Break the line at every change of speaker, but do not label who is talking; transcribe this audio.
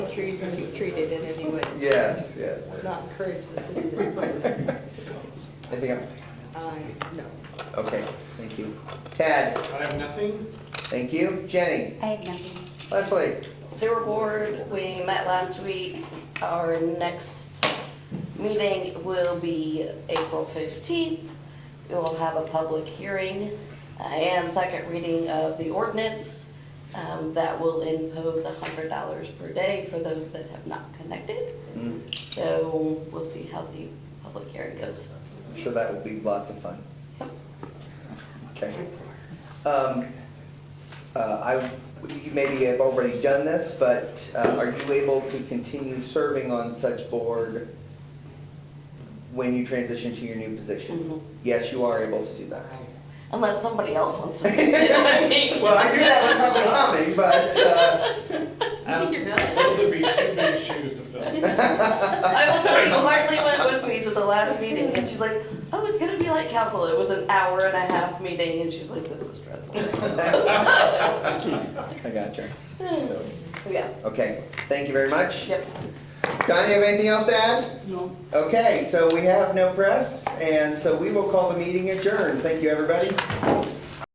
trees and is treated in any way.
Yes, yes.
Does Not encourage the citizens.
Anything else?
Uh, no.
Okay, thank you. Tad,
I have nothing.
thank you. Jenny,
I have nothing.
Leslie,
Sewer board, we met last week. Our next meeting will be April 15th. We will have a public hearing uh, and second reading of the ordinance um, that will impose $100 per day for those that have not connected.
Mm,
So we'll see how the public hearing goes.
I'm sure that will be lots of fun. Okay. Um, uh, I, you maybe have already done this, but uh, are you able to continue serving on such board when you transition to your new position?
Mhm.
Yes, you are able to do that.
Unless somebody else wants to. do it, I mean.
Well, I knew that was probably coming, but, uh,
I think you're good.
Um, Those would be two big shoes to fill.
I will tell you, Hartley went with me to the last meeting, and she's like, "Oh, it's gonna be like council." It was an hour and a half meeting, and she's like, "This was stressful."
I gotcha. So,
So, yeah.
Okay, thank you very much.
Yep.
John, you have anything else to add?
No.
Okay, so we have no press, and so we will call the meeting adjourned. Thank you, everybody.